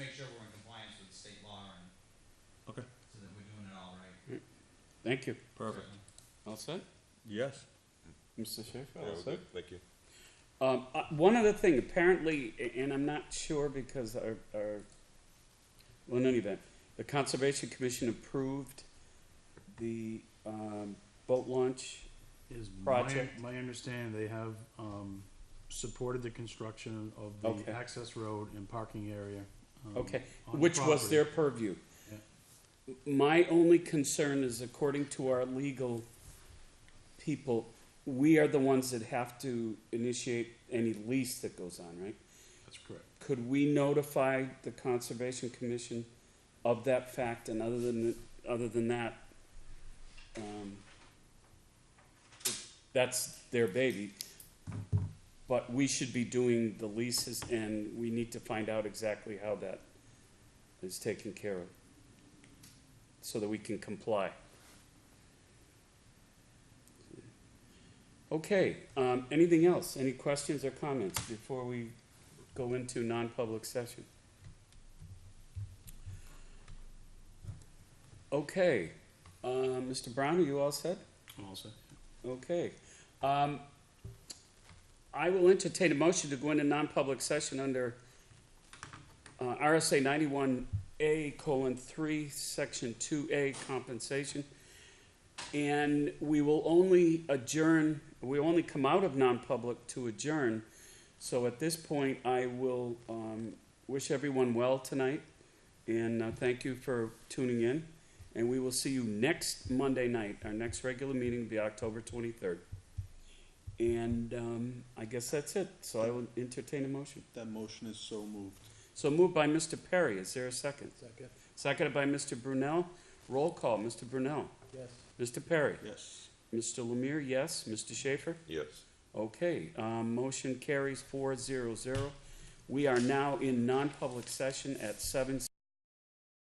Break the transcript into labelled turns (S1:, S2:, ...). S1: Thank you.
S2: Perfect.
S1: All set?
S2: Yes.
S1: Mr. Schaefer,
S3: Yeah,
S1: all
S3: we're
S1: set?
S3: good. Thank you.
S1: Um, uh, one other thing, apparently, a- and I'm not sure because our, our, well, in any event, the Conservation Commission approved the, um, boat launch.
S4: Is my,
S1: project.
S4: my understanding, they have, um, supported the construction of the
S1: Okay.
S4: access road and parking area. um,
S1: Okay,
S4: on the
S1: which was their
S4: property.
S1: purview. My only concern is according to our legal people, we are the ones that have to initiate any lease that goes on, right?
S4: That's correct.
S1: Could we notify the Conservation Commission of that fact, and other than, other than that, um, that's their baby, but we should be doing the leases, and we need to find out exactly how that is taken care of, so that we can comply. Okay, um, anything else? Any questions or comments before we go into non-public session. Okay, uh, Mr. Brown, are you all set?
S4: I'm all set.
S1: Okay. Um, I will entertain a motion to go into non-public session under uh, RSA ninety-one A colon three, section two A compensation. And we will only adjourn, we only come out of non-public to adjourn. So at this point, I will um, wish everyone well tonight and uh, thank you for tuning in. And we will see you next Monday night. Our next regular meeting will be October 23rd. And um, I guess that's it. So I will entertain a motion.
S5: That motion is so moved.
S1: So moved by Mr. Perry. Is there a second?
S5: Second.
S1: Seconded by Mr. Brunel. Roll call, Mr. Brunel.
S5: Yes.
S1: Mr. Perry.
S5: Yes.
S1: Mr. Lemire, yes. Mr. Schaefer?
S3: Yes.
S1: Okay, um, motion carries four zero zero. We are now in non-public session at seven